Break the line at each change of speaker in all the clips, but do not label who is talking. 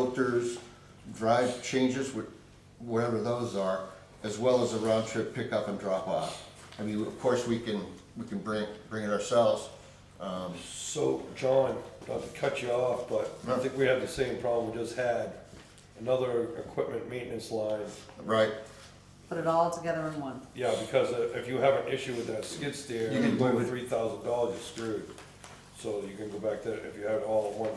filters, drive changes, wh- whatever those are, as well as a round trip pickup and drop off. I mean, of course, we can, we can bring, bring it ourselves. Um,
So, John, not to cut you off, but I think we have the same problem we just had. Another equipment maintenance line.
Right,
Put it all together in one.
Yeah, because uh, if you have an issue with that skid steer,
You can
you over
move it.
three thousand dollars, you're screwed. So you can go back to, if you have it all in one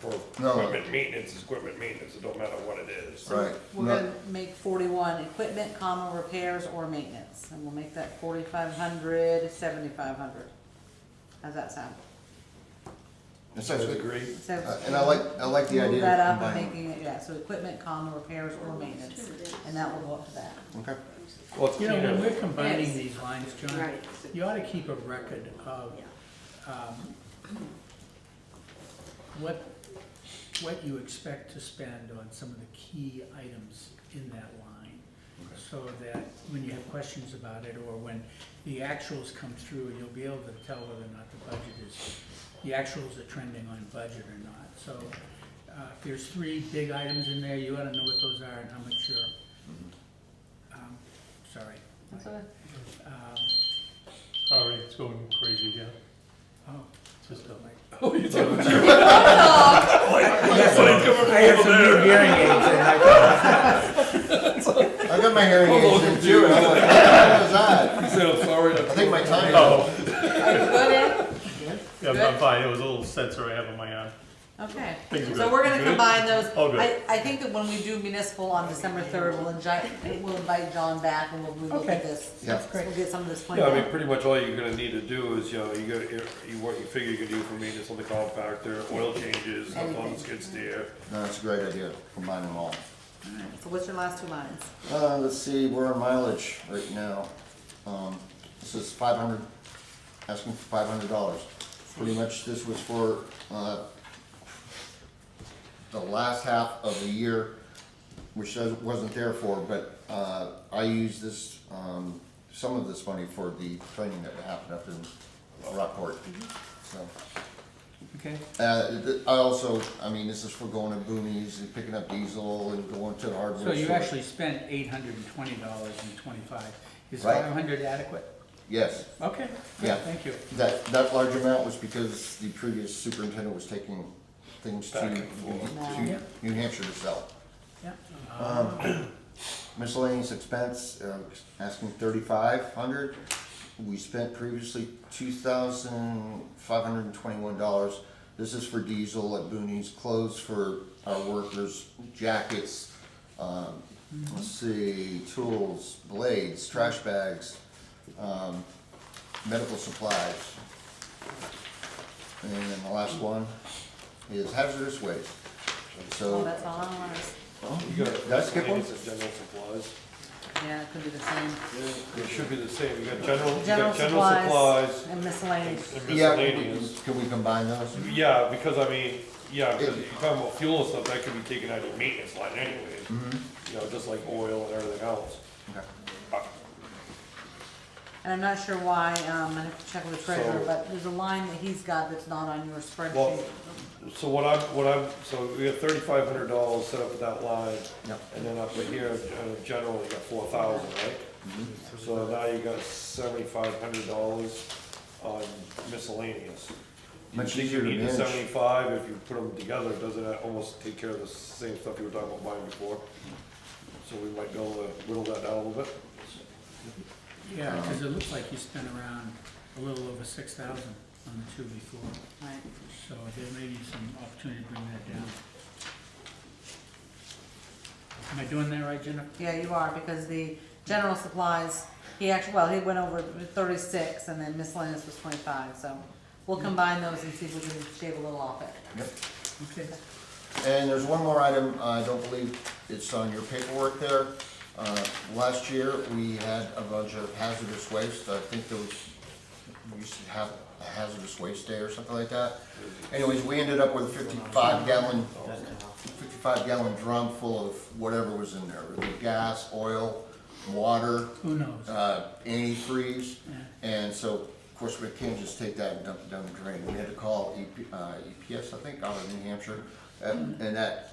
for
No.
equipment maintenance, it's equipment maintenance, it don't matter what it is.
right.
We're
No-
gonna make forty-one, equipment, comma, repairs or maintenance, and we'll make that forty-five hundred, seventy-five hundred. How's that sound?
It
Does
sounds
it
good.
agree?
So
Uh, And I like, I like the
Move
idea
that
of
up and
combining.
making it, yeah, so equipment, comma, repairs or maintenance, and that will go up to that.
Okay.
Well, it's
You know, when
cleaner.
we're combining
Yes.
these lines, John,
Right.
you ought to keep a record of, um, what, what you expect to spend on some of the key items in that line. So that when you have questions about it, or when the actuals come through, you'll be able to tell whether or not the budget is, the actuals are trending on budget or not. So, uh, if there's three big items in there, you ought to know what those are and how much you're, um, sorry.
That's okay.
Um,
All right, it's going crazy again.
oh,
It's Just uh, a-
I have some new hearing aids and I
I got my hearing aids in too. and I'm like, "What was that?" I think my time.
Oh,
Good, eh?
yeah, I'm- I'm fine. It was a little sensor I have on my arm.
okay,
Things are
so
good.
we're gonna
Good?
combine those.
All good.
I, I think that when we do municipal on December third, we'll invite, we'll invite John back and we'll relook at
Okay.
this.
Yeah.
So We'll get some of this pointed
Yeah, I mean,
out.
pretty much all you're gonna need to do is, you know, you got, you, what you figure you could do for maintenance on the compactor, oil changes, stuff on the skid steer.
No, that's a great idea, combine them all.
So what's your last two lines?
Uh, let's see, we're on mileage right now. Um, this is five hundred, asking for five hundred dollars. Pretty much this was for, uh, the last half of the year, which doesn't- wasn't there for, but, uh, I used this, um, some of this money for the training that happened up in Rockport, so.
Okay.
Uh, th- I also, I mean, this is for going to Boonies and picking up diesel and going to the hardware
So
store.
you actually spent eight hundred and twenty dollars and twenty-five. Is
Right.
five hundred adequate?
Yes.
Okay,
Yeah.
good, thank you.
That, that large amount was because the previous superintendent was taking things to,
Back and
to New Hampshire to sell.
Yeah.
Miscellaneous expense, uh, asking thirty-five hundred. We spent previously two thousand five hundred and twenty-one dollars. This is for diesel at Boonies, clothes for our workers, jackets, um, let's see, tools, blades, trash bags, um, medical supplies. And then the last one is hazardous waste.
Oh,
So,
that's all I wanted.
oh,
You got
did I skip one?
Maintenance of general supplies.
Yeah, it could be the same.
It should be the same, you got general, you
General
got general supplies
supplies and miscellaneous.
and
Yeah, we-
miscellaneous.
can we combine those?
Yeah, because I mean, yeah, because you're talking about fuel and stuff, that could be taken out of your maintenance line anyways.
Mm-hmm.
You know, just like oil and everything else.
Okay.
And I'm not sure why, um, I have to check with the treasurer,
So-
but there's a line that he's got that's not on your spreadsheet.
Well, so what I'm, what I'm, so we have thirty-five hundred dollars set up for that line.
Yep.
And then up here, uh, general, you got four thousand, right?
Mm-hmm.
So now you got seventy-five hundred dollars on miscellaneous. You
Much
think you
easier to
need the
manage.
Seventy-five, if you put them together, doesn't that almost take care of the same stuff you were talking about buying before? So we might be able to whittle that down a little bit.
Yeah,
Um,
because it looks like you spent around a little over six thousand on the two before,
Right.
so there may be some opportunity to bring that down. Am I doing that right, Jennifer?
Yeah, you are, because the general supplies, he actually, well, he went over to thirty-six and then miscellaneous was twenty-five, so we'll
Mm.
combine those and see if we can shave a little off it.
Yep.
Okay.
And there's one more item, I don't believe it's on your paperwork there. Uh, Last year, we had a bunch of hazardous waste, I think there was, we used to have a hazardous waste day or something like that. Anyways, we ended up with a fifty-five gallon, fifty-five gallon drum full of whatever was in there, really gas, oil, water,
Who knows?
uh, antifreeze.
Yeah.
And so, of course, we can't just take that and E dump it down the drain. We had to call EP, uh, EPS, I think, out of New Hampshire. And and that